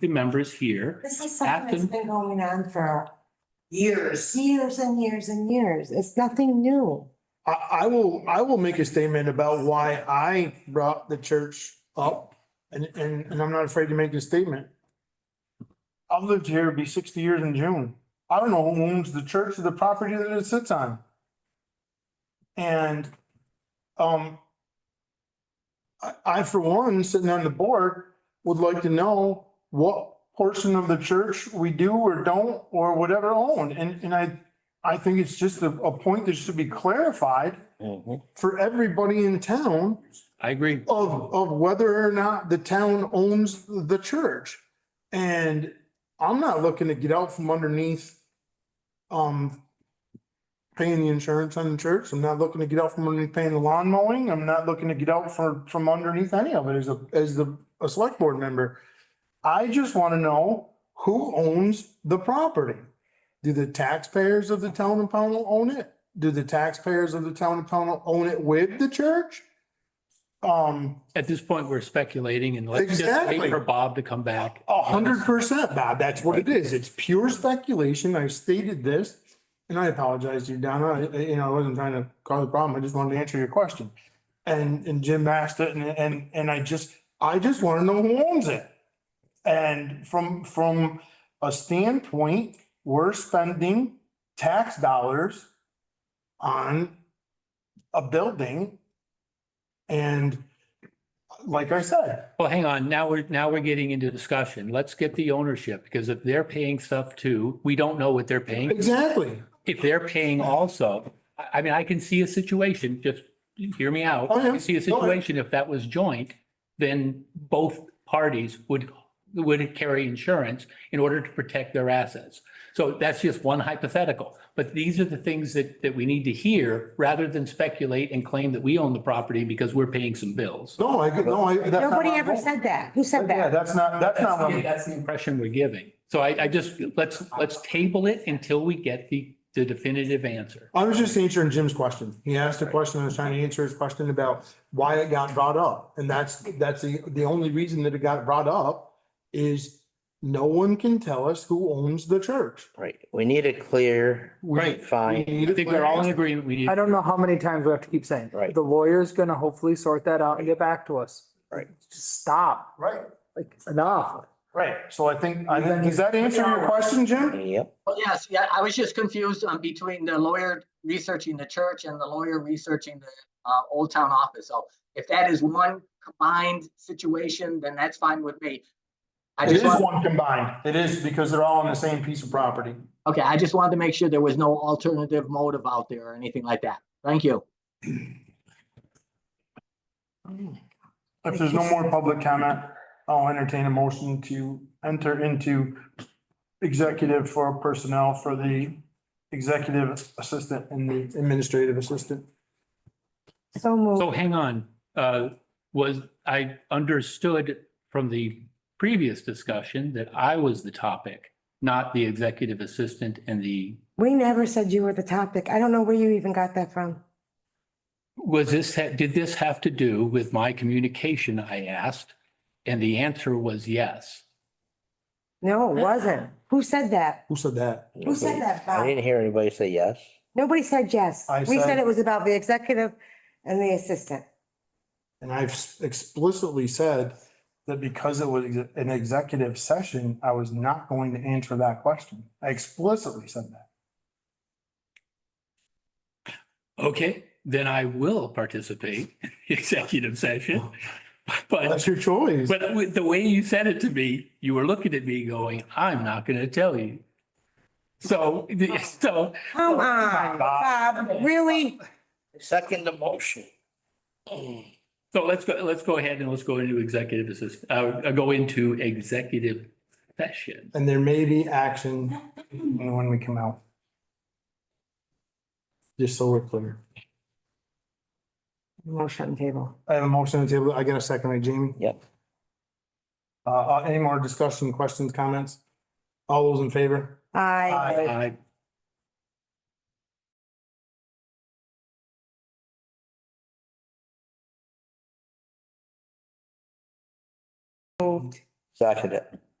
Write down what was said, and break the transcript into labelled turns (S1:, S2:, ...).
S1: the members here.
S2: This is something that's
S1: Afton.
S2: been going on for
S3: years.
S2: years and years and years. It's nothing new.
S4: I, I will, I will make a statement about why I brought the church up and, and, and I'm not afraid to make a statement. I've lived here, it'll be sixty years in June. I don't know who owns the church or the property that it sits on. And, um, I, I for one, sitting on the board, would like to know what portion of the church we do or don't or whatever own. And, and I I think it's just a, a point that should be clarified for everybody in town
S1: I agree.
S4: of, of whether or not the town owns the church. And I'm not looking to get out from underneath, um, paying the insurance on the church. I'm not looking to get out from underneath paying the lawn mowing. I'm not looking to get out for, from underneath any of it as a, as the, a select board member. I just want to know who owns the property. Do the taxpayers of the town of Pownell own it? Do the taxpayers of the town of Pownell own it with the church? Um,
S1: At this point, we're speculating and let's just wait
S4: Exactly.
S1: for Bob to come back.
S4: A hundred percent, Bob. That's what it is. It's pure speculation. I stated this. And I apologize to you, Donna. I- I- You know, I wasn't trying to cause a problem. I just wanted to answer your question. And, and Jim asked it and, and, and I just, I just want to know who owns it. And from, from a standpoint, we're spending tax dollars on a building. And like I said,
S1: Well, hang on. Now we're, now we're getting into discussion. Let's get the ownership because if they're paying stuff too, we don't know what they're paying.
S4: exactly.
S1: if they're paying also, I, I mean, I can see a situation, just hear me out.
S4: Oh,
S1: I
S4: yeah.
S1: can see a
S4: Go ahead.
S1: situation, if that was joint, then both parties would, would carry insurance in order to protect their assets. So that's just one hypothetical, but these are the things that, that we need to hear rather than speculate and claim that we own the property because we're paying some bills.
S4: No, I, no, I. that's not
S2: Nobody
S4: my
S2: ever
S4: fault.
S2: said that. Who said
S4: Yeah,
S2: that?
S4: that's not, that's
S1: That's
S4: not what,
S1: the- that's the impression we're giving. So I, I just, let's, let's table it until we get the, the definitive answer.
S4: I was just answering Jim's question. He asked a question, I was trying to answer his question about why it got brought up. And that's, that's the, the only reason that it got brought up is no one can tell us who owns the church.
S5: Right, we need a clear,
S1: Right.
S5: fine,
S1: I think we're all in agreement. We need.
S6: I don't know how many times we have to keep saying.
S5: Right.
S6: The lawyer's gonna hopefully sort that out and get back to us.
S5: Right.
S6: Just stop,
S4: Right,
S6: like, enough.
S4: right. So I think, I think, does that answer your question, Jim?
S5: yep,
S7: Well, yes, yeah, I was just confused um between the lawyer researching the church and the lawyer researching the uh Old Town office. So if that is one combined situation, then that's fine with me. I
S4: It
S7: just
S4: is
S7: want,
S4: one combined. It is because they're all on the same piece of property.
S7: okay, I just wanted to make sure there was no alternative motive out there or anything like that. Thank you.
S4: If there's no more public comment, I'll entertain a motion to enter into executive for personnel for the executive assistant and the administrative assistant.
S2: So moved.
S1: So hang on, uh, was, I understood from the previous discussion that I was the topic, not the executive assistant and the,
S2: We never said you were the topic. I don't know where you even got that from.
S1: was this, did this have to do with my communication, I asked? And the answer was yes.
S2: No, it wasn't. Who said that?
S4: Who said that?
S2: Who said that,
S5: I
S2: Bob?
S5: didn't hear anybody say yes.
S2: Nobody said yes.
S4: I
S2: We said
S4: said-
S2: it was about the executive and the assistant.
S4: And I've explicitly said that because it was an executive session, I was not going to answer that question. I explicitly said that.
S1: Okay, then I will participate in the executive session. But,
S4: That's your choice.
S1: but with the way you said it to me, you were looking at me going, I'm not going to tell you. So, so
S2: Come
S4: Oh,
S2: on, Bob, really?
S5: Second the motion.
S1: So let's go, let's go ahead and let's go into executive assist, uh, uh, go into executive session.
S4: And there may be action when we come out. Just so we're clear.
S2: Motion table.
S4: I have a motion on the table. I get a second, right, Jamie?
S5: Yep.
S4: Uh, Uh, any more discussion, questions, comments? All those in favor?
S2: I.
S4: Aye.
S1: I
S5: Second it.